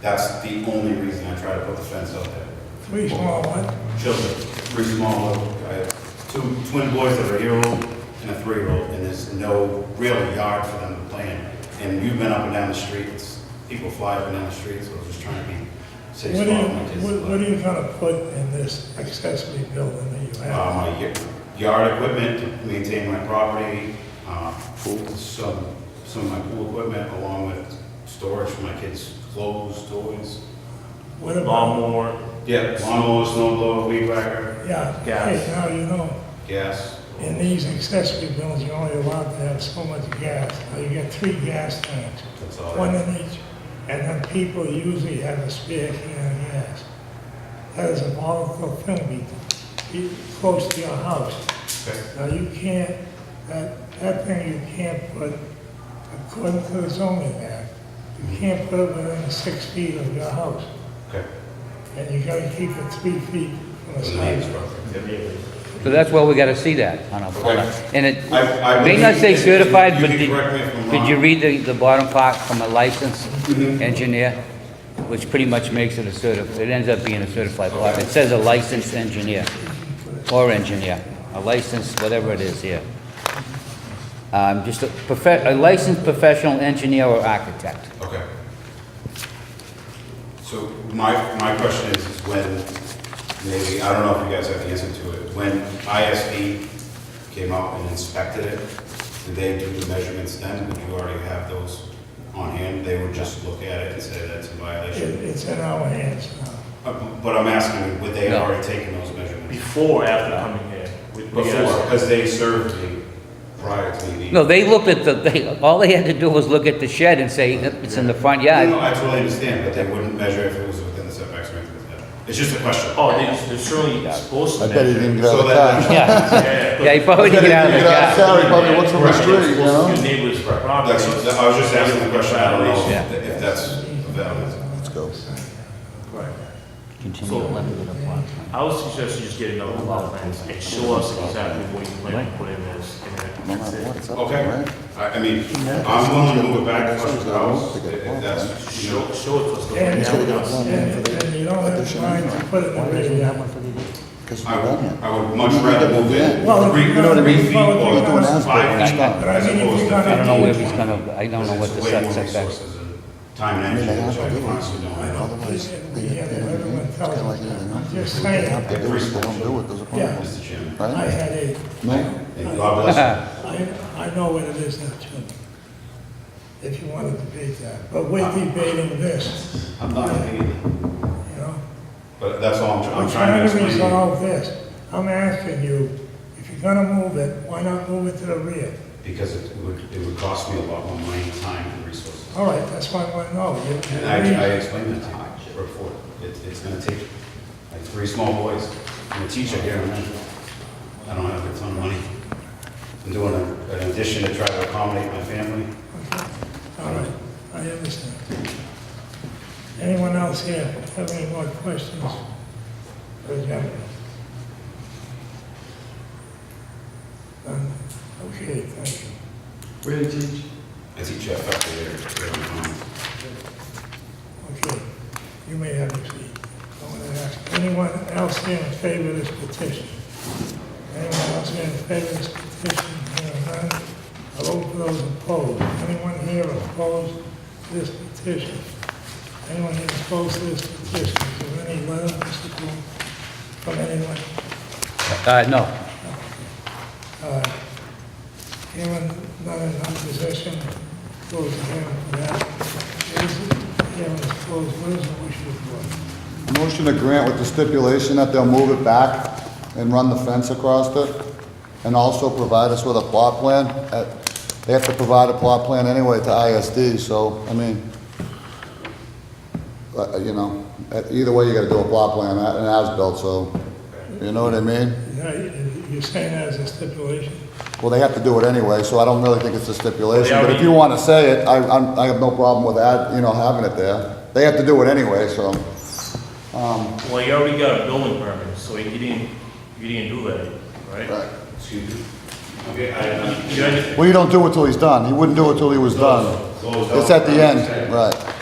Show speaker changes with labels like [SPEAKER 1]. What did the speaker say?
[SPEAKER 1] That's the only reason I try to put the fence up there.
[SPEAKER 2] Three small ones.
[SPEAKER 1] Children, three small little, I have two twin boys that are a year-old and a three-year-old, and there's no real yard for them to play in. And you've been up and down the streets, people fly up and down the streets, so I was just trying to be safe.
[SPEAKER 2] What are you,
[SPEAKER 1] small with my kids,
[SPEAKER 2] what-
[SPEAKER 1] but-
[SPEAKER 2] what are you gonna put in this accessory building that you
[SPEAKER 1] Uh,
[SPEAKER 2] have?
[SPEAKER 1] my y- yard equipment, to maintain my property, uh, some, some of my pool equipment along with storage for my kids' clothes, toys.
[SPEAKER 2] What about,
[SPEAKER 3] Lawnmower,
[SPEAKER 1] Yeah, lawnmower, snowblower, weed whacker,
[SPEAKER 2] yeah,
[SPEAKER 3] Gas.
[SPEAKER 2] hey, now you know,
[SPEAKER 1] gas.
[SPEAKER 2] in these accessory buildings, you're only allowed to have so much gas. Now you got three gas tanks,
[SPEAKER 1] That's all.
[SPEAKER 2] one
[SPEAKER 1] I-
[SPEAKER 2] in each, and then people usually have a spare can of gas. That is a volatile thing, be, be close to your house.
[SPEAKER 1] Okay.
[SPEAKER 2] Now, you can't, that, that thing you can't put, according to the zoning act, you can't put it within six feet of your house.
[SPEAKER 1] Okay.
[SPEAKER 2] And you gotta keep it three feet from the
[SPEAKER 1] The name's
[SPEAKER 2] sidewalk.
[SPEAKER 1] perfect.
[SPEAKER 4] So that's why we gotta see that on a, on a- and it
[SPEAKER 1] I- I
[SPEAKER 4] may not say
[SPEAKER 1] believe-
[SPEAKER 4] certified,
[SPEAKER 1] you
[SPEAKER 4] but
[SPEAKER 1] can
[SPEAKER 4] did,
[SPEAKER 1] correct me if I'm
[SPEAKER 4] did you
[SPEAKER 1] wrong.
[SPEAKER 4] read the, the bottom part from a licensed
[SPEAKER 1] Mhm.
[SPEAKER 4] engineer? Which pretty much makes it a certi, it ends up being a certified plot. It says a licensed engineer, or engineer, a licensed, whatever it is here. Um, just a profe, a licensed professional engineer or architect.
[SPEAKER 1] Okay. So my, my question is, is when, maybe, I don't know if you guys have the answer to it, when ISD came out and inspected it, did they do the measurements then? Did you already have those on hand? They would just look at it and say that's a
[SPEAKER 2] It,
[SPEAKER 1] violation?
[SPEAKER 2] it's in our hands now.
[SPEAKER 1] Uh, But I'm asking, would they have
[SPEAKER 4] No.
[SPEAKER 1] already taken those measurements?
[SPEAKER 3] before, or after coming here. We- we
[SPEAKER 1] Before,
[SPEAKER 3] asked-
[SPEAKER 1] because they served me prior to me.
[SPEAKER 4] No, they looked at the, they, all they had to do was look at the shed and say, "Yep, it's in the front
[SPEAKER 1] No,
[SPEAKER 4] yard.
[SPEAKER 1] no, I totally understand, but they wouldn't measure if it was within the setbacks or anything like that. It's just a question.
[SPEAKER 3] Oh, they- they're surely supposed to.
[SPEAKER 5] I bet he
[SPEAKER 3] measure.
[SPEAKER 5] didn't get out
[SPEAKER 1] So
[SPEAKER 5] of the
[SPEAKER 1] that-
[SPEAKER 5] car.
[SPEAKER 4] Yeah,
[SPEAKER 3] Yeah,
[SPEAKER 4] yeah,
[SPEAKER 3] but-
[SPEAKER 4] he probably
[SPEAKER 5] Better
[SPEAKER 4] didn't get out of
[SPEAKER 5] than
[SPEAKER 4] the
[SPEAKER 5] get
[SPEAKER 4] car.
[SPEAKER 5] out of the Sorry, probably what's on the
[SPEAKER 3] Right, they're
[SPEAKER 5] street, you
[SPEAKER 3] supposed to
[SPEAKER 5] know?
[SPEAKER 3] do neighbor's property.
[SPEAKER 1] That's, I was just asking the question, I don't know
[SPEAKER 4] Yeah.
[SPEAKER 1] if- if that's valid.
[SPEAKER 5] Let's go.
[SPEAKER 3] Right.
[SPEAKER 4] Continue
[SPEAKER 3] So-
[SPEAKER 4] left with the plot.
[SPEAKER 3] I would suggest you just get another lot plan and show us exactly what you plan to put in this, and then that's it.
[SPEAKER 1] Okay, I, I mean, I'm willing to move it back to the house, if if that's, you know,
[SPEAKER 3] Show, show it to us the
[SPEAKER 2] And,
[SPEAKER 5] gotta get
[SPEAKER 3] way
[SPEAKER 5] one.
[SPEAKER 2] and, and you don't have to mind to put it in the big yard.
[SPEAKER 5] Because
[SPEAKER 1] I
[SPEAKER 5] we're
[SPEAKER 1] would,
[SPEAKER 5] done yet.
[SPEAKER 1] I would much rather move in
[SPEAKER 2] Well,
[SPEAKER 1] three,
[SPEAKER 2] you know what I
[SPEAKER 1] three
[SPEAKER 2] mean?
[SPEAKER 1] feet
[SPEAKER 2] Well, if
[SPEAKER 1] or
[SPEAKER 2] you're gonna-
[SPEAKER 1] five feet,
[SPEAKER 5] Right.
[SPEAKER 1] as opposed to
[SPEAKER 2] I
[SPEAKER 4] I don't know where he's
[SPEAKER 1] fifteen.
[SPEAKER 4] gonna, I don't know what the
[SPEAKER 1] Way more
[SPEAKER 4] set- setbacks.
[SPEAKER 1] resources and Time
[SPEAKER 5] I
[SPEAKER 1] and
[SPEAKER 5] mean, they
[SPEAKER 1] energy,
[SPEAKER 5] have
[SPEAKER 1] which I
[SPEAKER 5] to do
[SPEAKER 1] honestly
[SPEAKER 5] it.
[SPEAKER 1] don't have.
[SPEAKER 5] Otherwise, they, they,
[SPEAKER 2] Yeah,
[SPEAKER 5] they,
[SPEAKER 2] everyone
[SPEAKER 5] it's
[SPEAKER 2] tells
[SPEAKER 5] kind of like
[SPEAKER 2] them.
[SPEAKER 5] anything else.
[SPEAKER 2] Just
[SPEAKER 5] If
[SPEAKER 2] saying.
[SPEAKER 5] They have to do it, they don't do it, there's a
[SPEAKER 2] Yeah.
[SPEAKER 5] problem.
[SPEAKER 1] Mr. Chairman,
[SPEAKER 2] I
[SPEAKER 5] Right?
[SPEAKER 2] had a,
[SPEAKER 5] No?
[SPEAKER 1] and God bless
[SPEAKER 2] I, I know what it is now too. If you wanna debate that, but we're debating this,
[SPEAKER 1] you. I'm not hating,
[SPEAKER 2] you know?
[SPEAKER 1] but that's all I'm, I'm trying
[SPEAKER 2] I'm
[SPEAKER 1] to
[SPEAKER 2] trying to
[SPEAKER 1] explain.
[SPEAKER 2] resolve this. I'm asking you, if you're gonna move it, why not move it to the rear?
[SPEAKER 1] Because it would, it would cost me a lot more money, time, and resources.
[SPEAKER 2] All right, that's why I want to know. You- you
[SPEAKER 1] And I, I
[SPEAKER 2] agree.
[SPEAKER 1] explained that to you before, it, it's gonna take, like, three small boys, and a teacher here, and I don't have a ton of money. I'm doing a- an addition to try to accommodate my family.
[SPEAKER 2] All right, I understand. Anyone else here have any more questions? for the gentleman? None? Okay, thank you.
[SPEAKER 6] Where did you?
[SPEAKER 1] I teach at Bethel there, every month.
[SPEAKER 2] Okay, you may have a seat. I want to ask, anyone else here in favor of this petition? Anyone else here in favor of this petition? Hearing none, I'll vote for those opposed. Anyone here opposed to this petition? Anyone here opposed to this petition? Is there any letter, Mr. Cole, from anyone?
[SPEAKER 4] Uh, no,
[SPEAKER 2] Uh, Anyone not in opposition? Close the hearing for that. Is it, hearing is closed. What is the wish of the board?
[SPEAKER 5] Motion to grant with the stipulation that they'll move it back and run the fence across it, and also provide us with a plot plan. Uh, They have to provide a plot plan anyway to ISD, so, I mean, uh, you know, uh, either way, you gotta do a plot plan, uh, an as-built, so, you know what I mean?
[SPEAKER 2] Yeah, you- You're saying that as a stipulation?
[SPEAKER 5] Well, they have to do it anyway, so I don't really think it's a stipulation,
[SPEAKER 3] Well, they
[SPEAKER 5] but if you wanna say it, I, I'm- I have no problem with that, you know, having it there. They have to do it anyway, so,
[SPEAKER 3] Well, you already got a building permit, so you didn't, you didn't do that, right?
[SPEAKER 5] right.
[SPEAKER 1] Excuse me? Okay,
[SPEAKER 3] You
[SPEAKER 1] I,
[SPEAKER 3] already-
[SPEAKER 5] Well, you don't do it till he's done. He wouldn't do it till he was done.
[SPEAKER 1] Closed out.
[SPEAKER 5] It's at the end, right.